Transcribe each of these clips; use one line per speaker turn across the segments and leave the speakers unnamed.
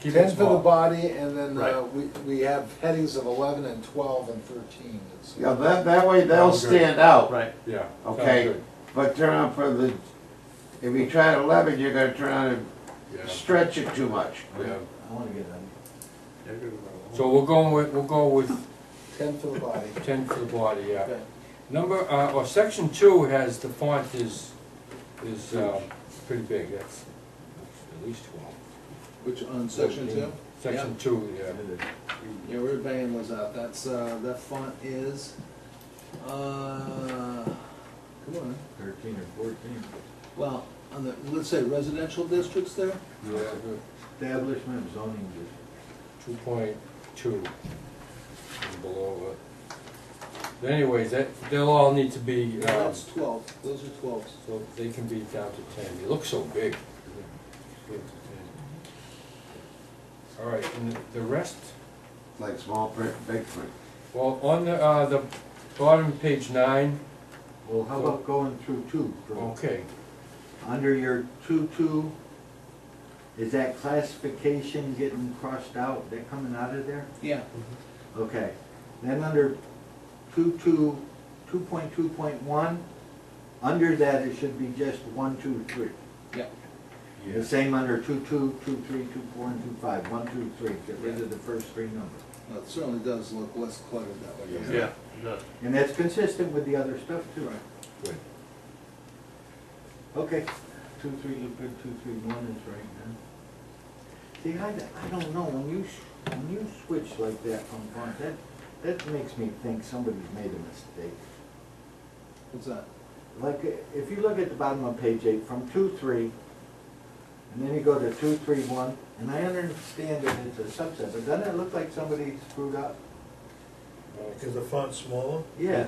Keep it
Ten for the
small.
body, and then uh,
Right.
we, we have headings of eleven and twelve and thirteen. It's-
Yeah, that, that way they'll
Sounds good.
stand out.
Right, yeah. sounds
Okay,
good.
but turn on for the, if you try at eleven, you're gonna turn on
Yeah,
and stretch it too much.
yeah.
I wanna get them.
So we'll go with, we'll go with
Ten for the body.
ten for the body, yeah.
Okay.
Number, uh, or section two has, the font is, is, uh, pretty big, that's at least twelve.
Which, on section two?
Section two, yeah.
Yeah, we're banging those out, that's, uh, that font is, uh, come on,
Thirteen or fourteen.
well, on the, let's say residential districts there,
Yeah,
Establishment of zoning district.
two point two and below it. Anyways, that, they'll all need to be,
Yeah,
um,
that's twelve, those are twelves.
So they can be down to ten, they look so big. All right, and the- the rest,
Like small print, big print.
well, on the, uh, the bottom page nine,
Well, how about going through two? from-
okay,
Under your two-two, is that classification getting crossed out? They're coming out of there?
Yeah,
Okay, then under two-two, two-point-two-point-one, under that, it should be just one-two-three.
yeah,
The same under two-two, two-three, two-four, and two-five, one-two-three, get rid of the first three numbers.
well, it certainly does look less cluttered that way. doesn't it?
Yeah,
And that's consistent with the other stuff too.
Right.
good.
Okay, two, three, look good, two, three, one is right now. See, I, I don't know, when you, sh- when you switch like that from font, that, that makes me think somebody's made a mistake.
What's that?
Like, i- if you look at the bottom of page eight, from two, three, and then you go to two, three, one, and I understand that it's a subset, but doesn't it look like somebody screwed up?
Because
the font's smaller?
Yeah,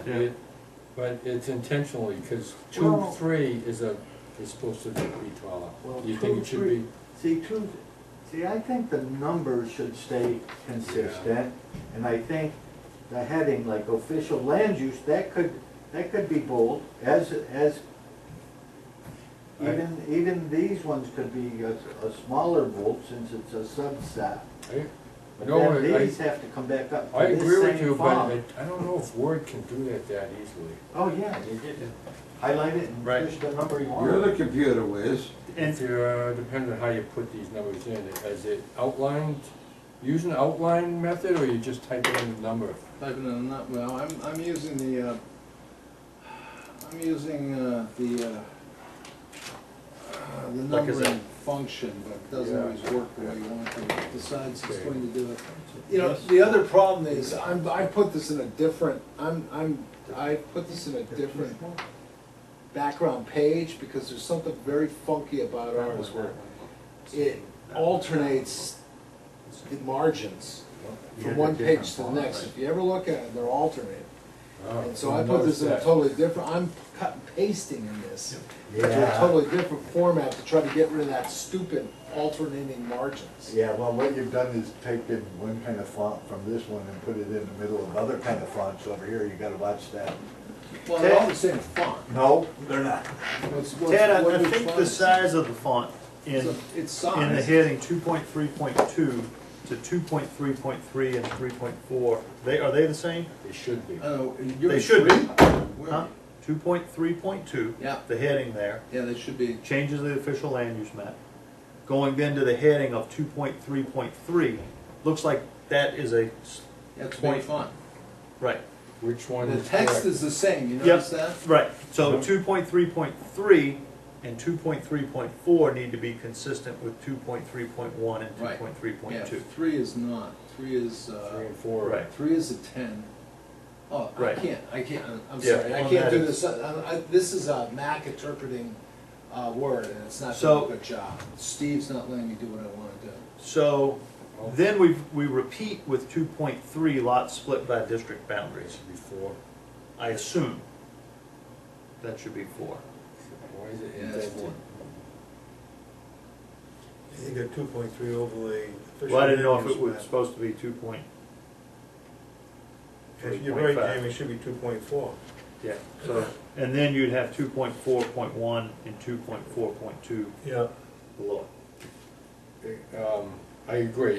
But it's intentionally, because two,
Well-
three is a, is supposed to be taller.
Well,
You think
two,
it should be,
see, two, see, I think the numbers should stay consistent, and I think the heading, like official land use, that could, that could be bold, as, as,
I-
even, even these ones could be a, a smaller bold, since it's a subset.
I,
But
No,
then
I- I-
these have to come back up
I
to this
agree with
same
you, but
font.
I, I don't know if Word can do that that easily.
Oh, yeah, you get to highlight it and
Right.
push the number you
You're the
want.
computer whiz.
And-
If you, uh, depends on how you put these numbers in, is it outlined, use an outline method, or you just type in the number?
Typing in that, well, I'm, I'm using the, uh, I'm using, uh, the, uh, uh, the
Like is it-
numbering function, but it doesn't
Yeah.
always work the way you want it to, decides it's
Okay.
going to do it.
You know, the other problem is, I'm, I put this in a different, I'm, I'm, I put this in a different background page, because there's something very funky about ours where it alternates the margins
Yeah,
from one
they're
page to the
different fonts,
next. If you ever look at it, they're alternated.
Uh,
And so
Oh,
I put this in a
noticed
totally different, I'm cut and pasting in this. to a
Yeah.
totally different format to try to get rid of that stupid alternating margins.
Yeah, well, what you've done is taken one kind of font from this one and put it in the middle of other kind of fonts over here, you gotta watch that.
Well, they're all the same font.
No, they're not.
What's- what's-
Ted, I-
what
I
which
think
font
the
is it?
size of the font in,
It's
in
a- It's
the
size,
heading two point three point two to two point three point three and three point four, they, are they the same?
They should be.
oh, you're.
They should be.
Where-
Huh? Two point three point two.
Yeah.
The heading there,
Yeah, they should be,
changes the official land use map. Going then to the heading of two point three point three, looks like that is a, s-
that's a big font.
right,
Which one
The
is
text
correct?
is the same, you
Yep.
notice that?
right. So two point three point three and two point three point four need to be consistent with two point three point one and two
Right.
point three
Yeah,
point two.
three is not, three is,
Three
uh,
and four.
Right.
three is a ten. Oh, I
Right.
can't, I can't, I'm- I'm
Yeah,
sorry, I
on
can't
that
do
it's-
this, uh, I, I, this is a Mac interpreting, uh, Word, and it's not doing
So-
a good job. Steve's not letting me do what I wanna do.
So then we, we repeat with two point three lots split by district boundaries,
Should be four.
I assume. That should be four.
Why is it
Yeah,
in
that's
that one?
You got two point three overlay.
Well, I didn't know if it was supposed to be two point,
You're right,
3.5.
Jamie, it should be two point four.
yeah, so, and then you'd have two point four point one and two point four point two
Yeah.
below.
Um, I agree,